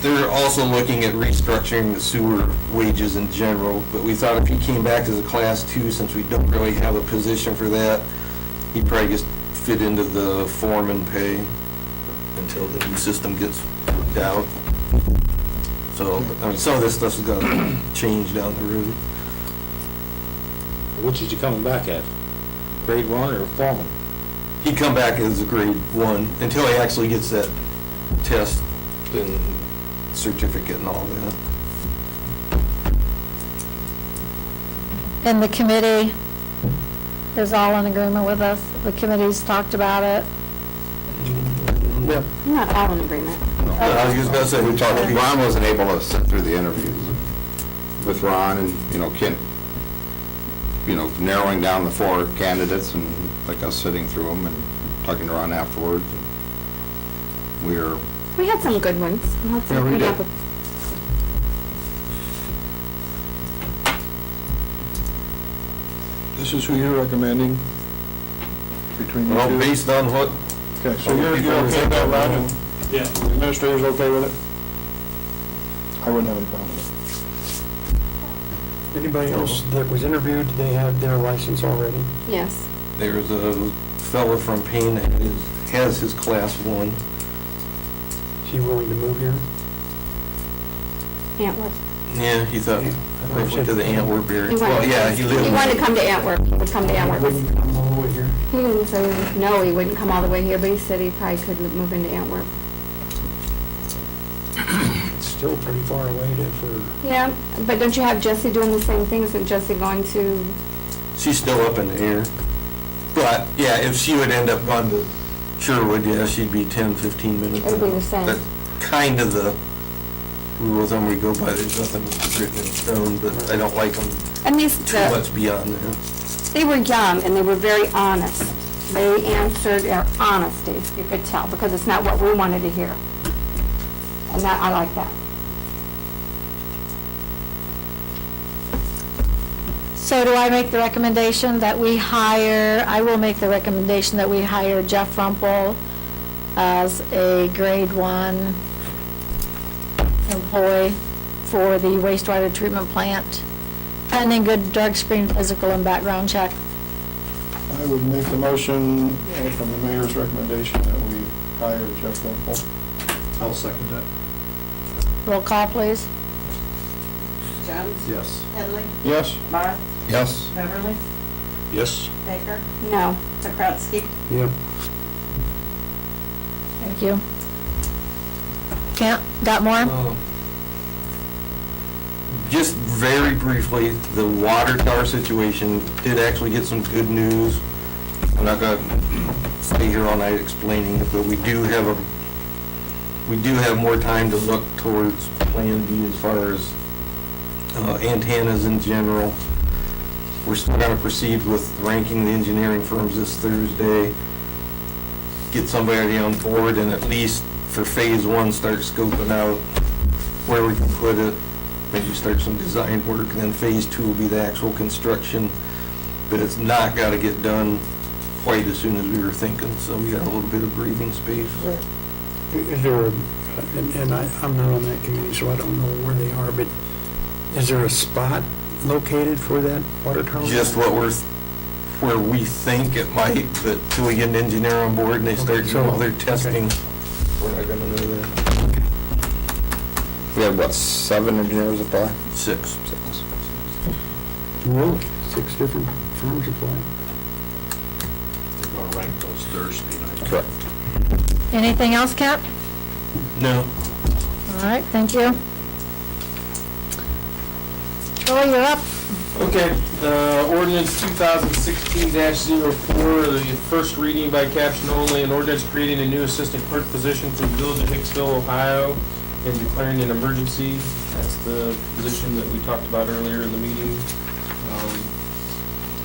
they're also looking at restructuring the sewer wages in general, but we thought if he came back as a class two, since we don't really have a position for that, he'd probably just fit into the foreman pay until the new system gets worked out. So, I mean, some of this stuff's gonna change down the road. Which is you coming back at? Grade one or foreman? He'd come back as a grade one until he actually gets that test and certificate and all that. And the committee is all in agreement with us. The committee's talked about it. Yeah. I'm not all in agreement. I was just about to say, We we talked, talked, Ron wasn't able to sit through the interviews with Ron and, you know, Kent, you know, narrowing down the four candidates and like us sitting through them and talking to Ron afterwards. We are, We had some good ones. We'll have to Yeah, we come did. up with- This is who you're recommending between the well, two? based on what, Okay, so you're, you're okay with that, Ron, and Yeah, the administrator's okay with it? I wouldn't have any problem with Anybody else that was interviewed, they had their license already? Yes. there was a fellow from Payne that is- has his class one. Is he willing to move here? Antwerp. Yeah, he thought, I went to the Antwerp area. He wanted- Well, yeah, he lived. He wanted to come to Antwerp. He would come to Antwerp. Wouldn't come all the way here? He didn't say, no, he wouldn't come all the way here, but he said he probably could move into Antwerp. It's still pretty far away to, for, Yeah, but don't you have Jesse doing the same thing? Isn't Jesse going to, She's still up in the air. But, yeah, if she would end up going to Sherwood, yeah, she'd be 10, 15 minutes. It'd be the same. That's Kind of the rule of thumb we go by, there's nothing written in stone, but I don't like them and these, too the- much beyond there. they were young and they were very honest. They answered their honesty, you could tell, because it's not what we wanted to hear. And that, I like that. So do I make the recommendation that we hire, I will make the recommendation that we hire Jeff Rumpel as a grade one employee for the wastewater treatment plant, pending good drug screen, physical, and background check. it. I would make the motion uh, from the mayor's recommendation that we hire Jeff Rumpel. I'll second that. Roll call, please. Jones? Yes. Headley? Yes? Barth? yes, Beverly? Yes. Baker? No. Pakratsky? Yep. Thank you. Can't, got more? Um, Just very briefly, the water tower situation did actually get some good news. I'm not gonna stay here all night explaining it, but we do have a, we do have more time to look towards Plan B as far as uh, antennas in general. We're still gonna proceed with ranking the engineering firms this Thursday get somebody on board and at least for phase one, start scoping out where we can put it, maybe start some design work, and then phase two will be the actual construction. But it's not gotta get done quite as soon as we were thinking, so we got a little bit of breathing space. Is there, a- and and I, I'm not on that committee, so I don't know where they are, but is there a spot located for that water tower? Just what we're, where we think it might, but till we get an engineer on board and they start doing all their testing, we're not gonna know that. we had what, seven engineers apply? Six. Six. Really? Six different firms applying? We're gonna rank those Thursday night. Correct. Anything else, Kent? No. All right, thank you. Troy, you're up. Okay, uh, ordinance two thousand sixteen 4 the first reading by caption only, an ordinance creating a new assistant clerk position for the village of Hicksville, Ohio, and declaring an emergency. That's the position that we talked about earlier in the meeting. Um,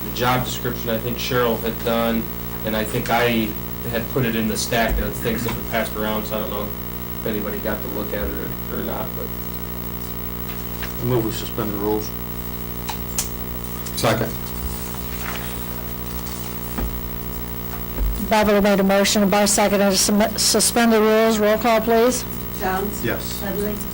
The job description, I think Cheryl had done, and I think I had put it in the stack of things that were passed around, so I don't know if anybody got to look at it or not, but Move we suspend the rules. Second. Beverly made a motion, Barth seconded, to submit- suspend the rules, roll call, please. Jones? Yes. Headley?